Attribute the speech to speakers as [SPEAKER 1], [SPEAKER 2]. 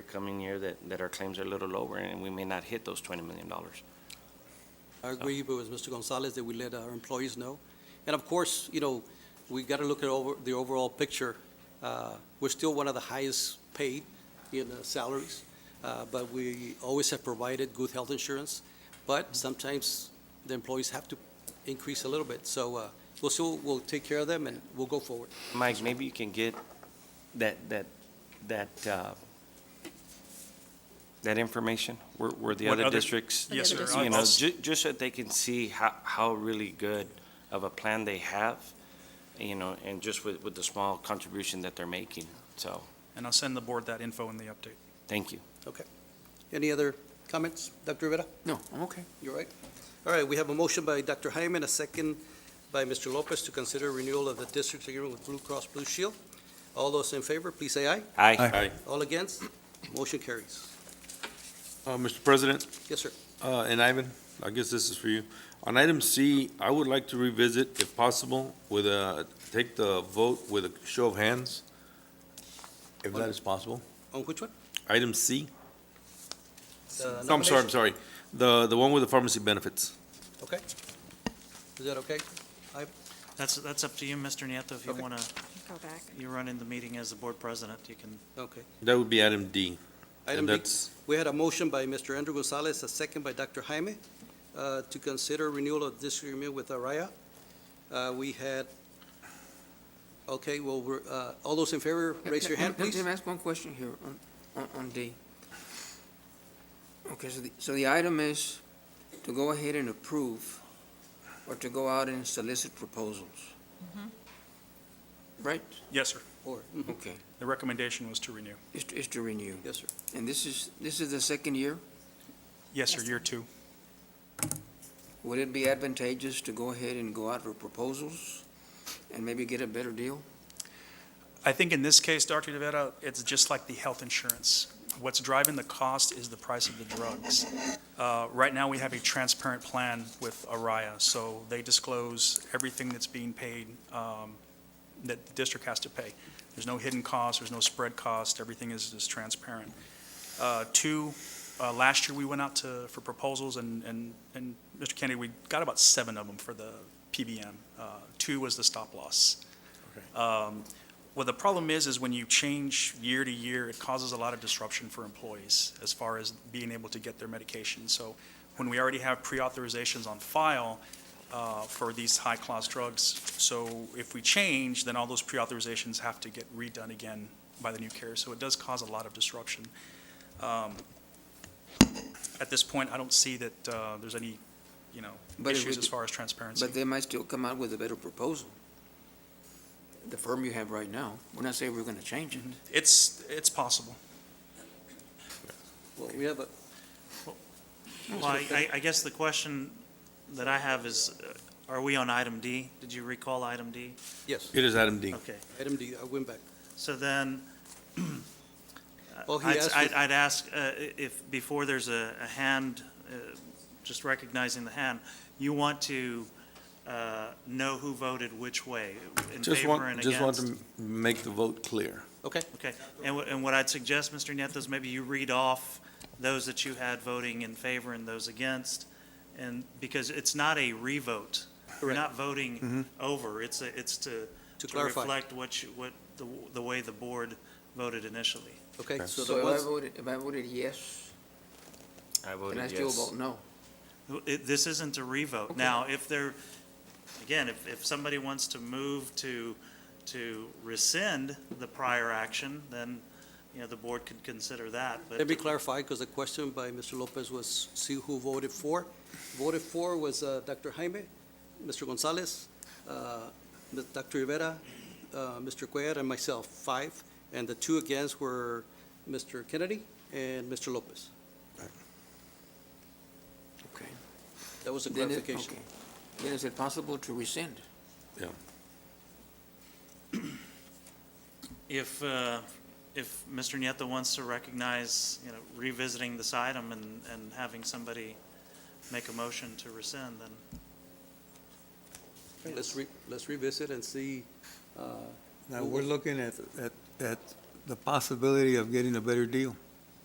[SPEAKER 1] coming year that, that our claims are a little lower and we may not hit those $20 million.
[SPEAKER 2] I agree with Mr. Gonzalez that we let our employees know. And of course, you know, we got to look at over, the overall picture. Uh, We're still one of the highest paid in uh, salaries, uh, but we always have provided good health insurance. But sometimes the employees have to increase a little bit. So uh, we'll still, we'll take care of them and we'll go forward.
[SPEAKER 1] Mike, maybe you can get that, that, that, uh, that information, where, where the
[SPEAKER 3] What
[SPEAKER 1] other
[SPEAKER 3] other-
[SPEAKER 1] districts.
[SPEAKER 3] Yes,
[SPEAKER 4] sir.
[SPEAKER 1] You know,
[SPEAKER 3] I'll-
[SPEAKER 1] ju- just so they can see how, how really good of a plan they have, you know, and just with, with the small contribution that they're making. So,
[SPEAKER 3] And I'll send the board that info in the update.
[SPEAKER 1] thank you.
[SPEAKER 2] Any other comments, Dr. Rivera?
[SPEAKER 5] No, I'm okay.
[SPEAKER 2] You're right. All right, we have a motion by Dr. Hyman, a second by Mr. Lopez to consider renewal of the district agreement with Blue Cross Blue Shield. All those in favor, please say aye.
[SPEAKER 1] Aye.
[SPEAKER 2] All against? Motion carries.
[SPEAKER 6] Uh, Mr. President,
[SPEAKER 2] Yes, sir.
[SPEAKER 6] uh, and Ivan, I guess this is for you. On item C, I would like to revisit, if possible, with a, take the vote with a show of hands, if that is possible.
[SPEAKER 2] On which one?
[SPEAKER 6] Item C,
[SPEAKER 2] The
[SPEAKER 6] No, I'm sorry, I'm
[SPEAKER 2] nomination?
[SPEAKER 6] sorry, the, the one with the pharmacy benefits.
[SPEAKER 2] Okay. Is that okay?
[SPEAKER 7] That's, that's up to you, Mr. Nieto, if you
[SPEAKER 2] Okay.
[SPEAKER 7] want to,
[SPEAKER 4] Go back.
[SPEAKER 7] you run in the meeting as the board president, you can
[SPEAKER 2] Okay.
[SPEAKER 6] That would be item D. and
[SPEAKER 2] Item B,
[SPEAKER 6] that's-
[SPEAKER 2] we had a motion by Mr. Andrew Gonzalez, a second by Dr. Jaime, uh, to consider renewal of this agreement with Araya. Uh, We had, okay, well, we're, uh, all those in favor, raise your hand,
[SPEAKER 5] Let-
[SPEAKER 2] please.
[SPEAKER 5] Let me ask one question here on, on, on D. Okay, so the, so the item is to go ahead and approve or to go out and solicit proposals.
[SPEAKER 2] Mm-hmm.
[SPEAKER 5] Right?
[SPEAKER 3] Yes, sir.
[SPEAKER 2] Four.
[SPEAKER 5] Okay.
[SPEAKER 3] The recommendation was to renew.
[SPEAKER 5] Is, to- is to renew.
[SPEAKER 2] Yes, sir.
[SPEAKER 5] And this is, this is the second year?
[SPEAKER 3] Yes, sir,
[SPEAKER 4] Yes,
[SPEAKER 3] year two.
[SPEAKER 5] Would it be advantageous to go ahead and go out for proposals and maybe get a better deal?
[SPEAKER 3] I think in this case, Dr. DeVera, it's just like the health insurance. What's driving the cost is the price of the drugs. Uh, Right now, we have a transparent plan with Araya, so they disclose everything that's being paid, um, that the district has to pay. There's no hidden cost, there's no spread cost, everything is is transparent. Uh, Two, uh, last year, we went out to, for proposals, and, and, and Mr. Kennedy, we got about seven of them for the PBM. Uh, Two was the stop loss. Um, well, the problem is, is when you change year to year, it causes a lot of disruption for employees as far as being able to get their medication. So when we already have pre-authorizations on file uh, for these high-class drugs, so if we change, then all those pre-authorizations have to get redone again by the new carrier. So it does cause a lot of disruption. Um, At this point, I don't see that uh, there's any, you know,
[SPEAKER 5] But if we
[SPEAKER 3] issues as
[SPEAKER 5] do-
[SPEAKER 3] far as transparency.
[SPEAKER 5] But they might still come out with a better proposal. The firm you have right now, we're not saying we're gonna change it.
[SPEAKER 3] It's, it's possible.
[SPEAKER 2] Well, we have a,
[SPEAKER 7] Well, I, I- I guess the question that I have is, uh, are we on item D? Did you recall item D?
[SPEAKER 2] yes,
[SPEAKER 6] It is item D.
[SPEAKER 7] Okay,
[SPEAKER 2] item D, I went back.
[SPEAKER 7] so then,
[SPEAKER 2] Well, he
[SPEAKER 7] I'd,
[SPEAKER 2] asked
[SPEAKER 7] I'd-
[SPEAKER 2] if-
[SPEAKER 7] I'd ask uh, i- if, before there's a, a hand, uh, just recognizing the hand, you want to uh, know who voted which way, in
[SPEAKER 6] Just
[SPEAKER 7] favor
[SPEAKER 6] want,
[SPEAKER 7] and
[SPEAKER 6] just want
[SPEAKER 7] against?
[SPEAKER 6] to m- make the vote clear.
[SPEAKER 2] Okay,
[SPEAKER 7] Okay, and what, and what I'd suggest, Mr. Nieto, is maybe you read off those that you had voting in favor and those against, and, because it's not a revote. You're
[SPEAKER 2] Correct.
[SPEAKER 7] not voting over, it's a, it's to,
[SPEAKER 2] to
[SPEAKER 7] to
[SPEAKER 2] clarify,
[SPEAKER 7] reflect what you, what, the, the way the board voted initially.
[SPEAKER 2] okay, so
[SPEAKER 5] So
[SPEAKER 2] the
[SPEAKER 5] if I
[SPEAKER 2] ones,
[SPEAKER 5] voted, if I voted yes,
[SPEAKER 1] I
[SPEAKER 5] then I
[SPEAKER 1] voted
[SPEAKER 5] still
[SPEAKER 1] yes.
[SPEAKER 5] vote no.
[SPEAKER 7] It, this isn't a revote.
[SPEAKER 5] Okay.
[SPEAKER 7] Now, if there, again, if, if somebody wants to move to, to rescind the prior action, then, you know, the board could consider that, but.
[SPEAKER 2] let me clarify, because the question by Mr. Lopez was, see who voted for. Voted for was uh, Dr. Jaime, Mr. Gonzalez, uh, Ms. Dr. Rivera, uh, Mr. Cuellar, and myself, five. And the two against were Mr. Kennedy and Mr. Lopez.
[SPEAKER 5] Okay.
[SPEAKER 2] That was a
[SPEAKER 5] Then it-
[SPEAKER 2] clarification.
[SPEAKER 5] okay. Then is it possible to rescind?
[SPEAKER 7] If, uh, if Mr. Nieto wants to recognize, you know, revisiting this item and, and having somebody make a motion to rescind, then
[SPEAKER 2] Let's re, let's revisit and see, uh,
[SPEAKER 8] Now, we're looking at, at, at the possibility of getting a better deal.